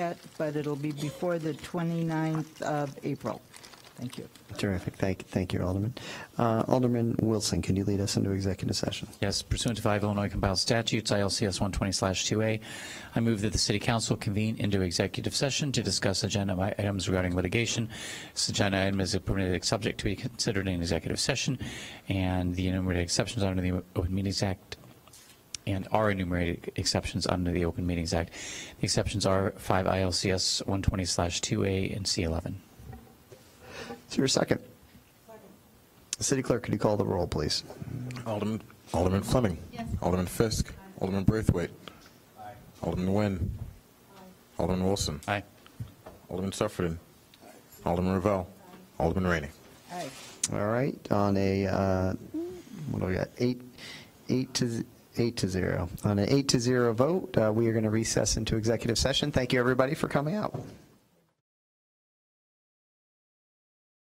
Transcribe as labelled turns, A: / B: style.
A: yet, but it'll be before the 29th of April. Thank you.
B: Terrific. Thank, thank you, Alderman. Uh, Alderman Wilson, can you lead us into executive session?
C: Yes, pursuant to five Illinois compiled statutes, ILCS 120/2A, I move that the city council convene into executive session to discuss agenda i- items regarding litigation. This agenda item is a permitted subject to be considered in executive session, and the enumerated exceptions under the Open Meetings Act and are enumerated exceptions under the Open Meetings Act. The exceptions are 5 ILCS 120/2A and C11.
B: Is there a second? City Clerk, could you call the roll, please?
D: Alderman, Alderman Fleming. Alderman Fisk. Alderman Braithwaite. Alderman Nguyen. Alderman Wilson.
C: Aye.
D: Alderman Sufferton. Alderman Ravel. Alderman Rainey.
B: All right, on a, uh, what do we got, eight, eight to, z- eight to zero. On an eight to zero vote, uh, we are going to recess into executive session. Thank you, everybody, for coming out.